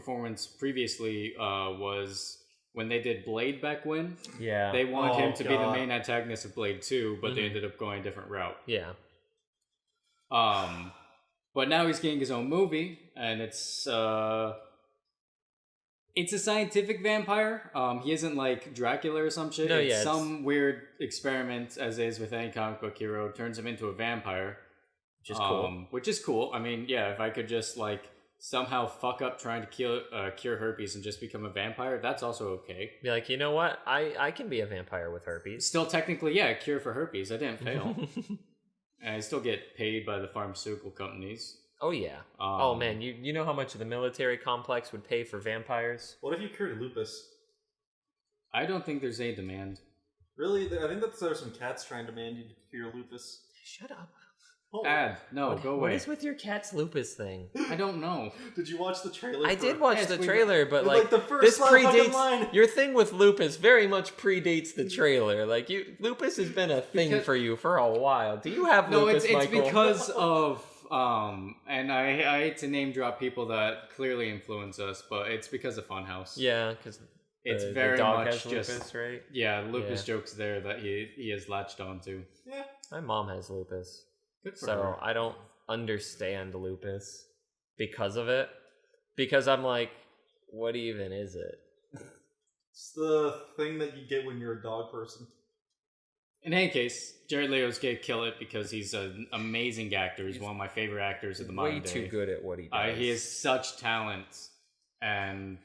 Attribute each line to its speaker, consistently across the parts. Speaker 1: performance previously uh, was when they did Blade back when.
Speaker 2: Yeah.
Speaker 1: They wanted
Speaker 3: Oh,
Speaker 1: him to be the
Speaker 3: God.
Speaker 1: main antagonist of Blade 2, but they
Speaker 3: Mhm.
Speaker 1: ended up going a different route.
Speaker 3: Yeah.
Speaker 1: Um, but now he's getting his own movie, and it's uh, it's a scientific vampire. Um, he isn't like Dracula or some shit.
Speaker 3: No,
Speaker 1: it's
Speaker 3: yeah, it's-
Speaker 1: some weird experiment, as is with any comic book hero, turns him into a vampire,
Speaker 2: which is cool.
Speaker 1: um, Which is cool. I mean, yeah, if I could just like somehow fuck up trying to kill, uh, cure herpes and just become a vampire, that's also okay.
Speaker 3: Be like, you know what? I I can be a vampire with herpes.
Speaker 1: Still, technically, yeah, a cure for herpes. I didn't fail, and I still get paid by the pharmaceutical companies.
Speaker 3: oh yeah.
Speaker 1: Um,
Speaker 3: oh man, you you know how much the military complex would pay for vampires?
Speaker 4: What if you cured lupus?
Speaker 1: I don't think there's any demand.
Speaker 4: Really, Th- I think that there's some cats trying to demand you to cure lupus.
Speaker 3: Shut up.
Speaker 4: Oh,
Speaker 1: Ad, no,
Speaker 3: What-
Speaker 1: go
Speaker 3: What
Speaker 1: away.
Speaker 3: is with your cat's lupus thing?
Speaker 1: I don't know.
Speaker 4: did you watch the trailer?
Speaker 3: I
Speaker 4: for-
Speaker 3: did watch
Speaker 1: yes,
Speaker 3: the
Speaker 1: we-
Speaker 3: trailer, but
Speaker 4: like,
Speaker 3: like,
Speaker 4: the first
Speaker 3: this
Speaker 4: line, fucking
Speaker 3: predates
Speaker 4: line.
Speaker 3: your thing with lupus. Very much predates the trailer. Like you, lupus has been a thing
Speaker 1: Because-
Speaker 3: for you for a while. Do you have
Speaker 1: No,
Speaker 3: lupus,
Speaker 1: it's it's
Speaker 3: Michael?
Speaker 1: because of um, and I I hate to name drop people that clearly influence us, but it's because of Funhouse.
Speaker 3: yeah, because
Speaker 1: it's
Speaker 3: the,
Speaker 1: very
Speaker 3: the dog
Speaker 1: much
Speaker 3: has
Speaker 1: just
Speaker 3: lupus, right?
Speaker 1: yeah, Lucas jokes there that he he has latched onto.
Speaker 4: Yeah.
Speaker 3: My mom has lupus,
Speaker 1: Good for
Speaker 3: so uh,
Speaker 1: her.
Speaker 3: I don't understand lupus because of it. Because I'm like, what even is it?
Speaker 4: It's the thing that you get when you're a dog person.
Speaker 1: In any case, Jared Leo's gonna kill it because he's an amazing actor. He's,
Speaker 3: He's
Speaker 1: one of my favorite actors of the modern
Speaker 3: Way
Speaker 1: day.
Speaker 3: too good at what he
Speaker 1: Uh,
Speaker 3: does.
Speaker 1: he has such talent, and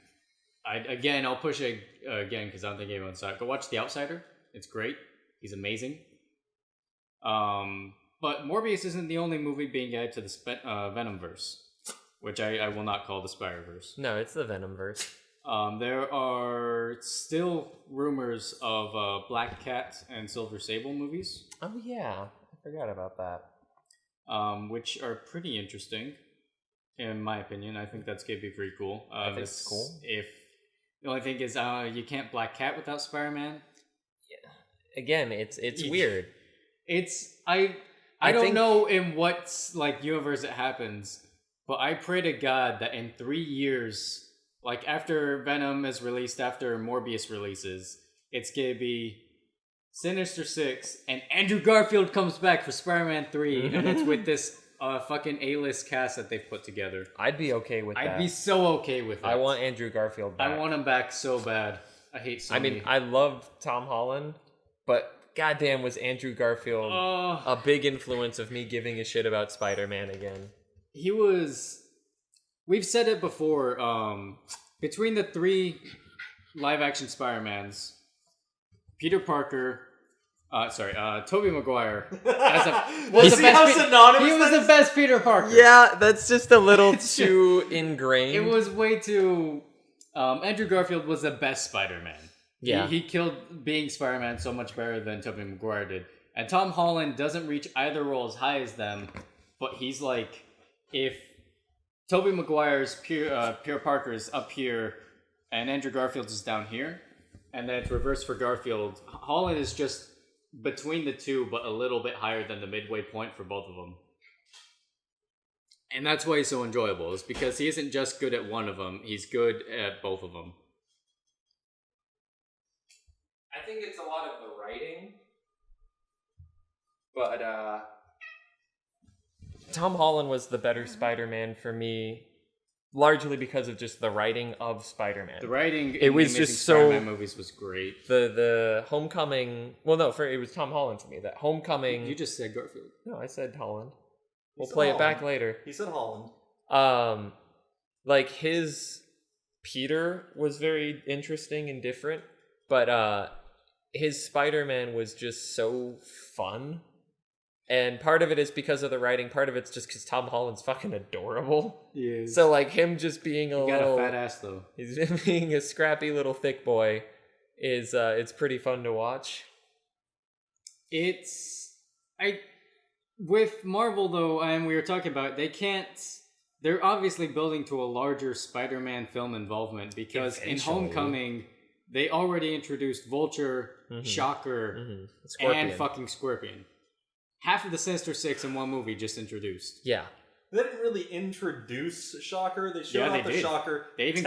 Speaker 1: I again I'll push it uh, again because I don't think anyone's saw it. Go watch The Outsider; it's great. He's amazing. Um, but Morbius isn't the only movie being added to the Spe- uh, Venomverse, which I, I will not call the Spider-Verse.
Speaker 3: No, it's the Venom verse.
Speaker 1: Um, there are still rumors of uh, Black Cat and Silver Sable movies,
Speaker 3: Oh yeah, I forgot about that.
Speaker 1: um, which are pretty interesting, in my opinion. I think that's gonna be pretty cool. Uh,
Speaker 3: think it's
Speaker 1: this-
Speaker 3: cool.
Speaker 1: If the only thing is, uh, you can't Black Cat without Spider Man.
Speaker 3: Again, it's it's
Speaker 1: Yeah.
Speaker 3: weird.
Speaker 1: It's I I,
Speaker 3: I
Speaker 1: don't
Speaker 3: think-
Speaker 1: know in what like universe it happens, but I pray to God that in three years, like after Venom is released, after Morbius releases, it's gonna be. Sinister Six and Andrew Garfield comes back for Spider-Man Three, and it's with this uh, fucking A-list cast that they've put together.
Speaker 3: I'd be okay with
Speaker 1: I'd
Speaker 3: that.
Speaker 1: be so okay with it.
Speaker 3: I want Andrew Garfield back.
Speaker 1: I want him back so bad. I hate. Sony.
Speaker 3: I mean, I love Tom Holland, but goddamn, was Andrew Garfield
Speaker 1: Oh,
Speaker 3: a big influence of me giving a shit about Spider-Man again?
Speaker 1: he was. We've said it before. Um, between the three live-action Spider-Mans, Peter Parker, uh, sorry, uh, Tobey Maguire as a, was
Speaker 4: You
Speaker 1: the
Speaker 4: see
Speaker 1: best.
Speaker 4: how
Speaker 1: Pe-
Speaker 4: synonymous
Speaker 1: he was
Speaker 4: that
Speaker 1: the best Peter Parker.
Speaker 3: Yeah, that's just a little
Speaker 1: It's
Speaker 3: too ingrained.
Speaker 1: it was way too. Um, Andrew Garfield was the best Spider-Man.
Speaker 3: yeah,
Speaker 1: He, he killed being Spider Man so much better than Tobey Maguire did. And Tom Holland doesn't reach either role as high as them, but he's like, if Tobey Maguire's Pierre, uh, Pierre Parker is up here and Andrew Garfield is down here, and then it's reverse for Garfield, Holland is just between the two, but a little bit higher than the midway point for both of them. And that's why he's so enjoyable, is because he isn't just good at one of them, he's good at both of them.
Speaker 3: I think it's a lot of the writing, but uh, Tom Holland was the better Spider-Man for me, largely because of just the writing of Spider-Man.
Speaker 1: The writing
Speaker 3: It
Speaker 1: in
Speaker 3: was
Speaker 1: the Amazing
Speaker 3: just so-
Speaker 1: Spider-Man movies was great.
Speaker 3: the the homecoming well no for it was tom holland for me that homecoming
Speaker 1: You just said Garfield.
Speaker 3: no i said holland we'll
Speaker 4: said
Speaker 3: play it back
Speaker 4: Holland.
Speaker 3: later
Speaker 4: He said Holland.
Speaker 3: um like his peter was very interesting and different but uh his spider-man was just so fun and part of it is because of the writing part of it's just because tom holland's fucking adorable
Speaker 1: Yeah.
Speaker 3: so like him just being a
Speaker 1: you got
Speaker 3: little
Speaker 1: a fat ass though.
Speaker 3: He's being a scrappy little thick boy is uh it's pretty fun to watch.
Speaker 1: It's I with Marvel though, and we were talking about it, they can't. They're obviously building to a larger Spider-Man film involvement because in
Speaker 3: Eventually.
Speaker 1: Homecoming they already introduced Vulture,
Speaker 3: Mhm.
Speaker 1: Shocker, and fucking Scorpion. Half of the Sinister Six in one movie just introduced.
Speaker 3: yeah.
Speaker 1: They didn't really introduce Shocker. They showed
Speaker 4: Yeah,
Speaker 1: off
Speaker 4: they
Speaker 1: the
Speaker 4: did.
Speaker 1: Shocker
Speaker 4: They even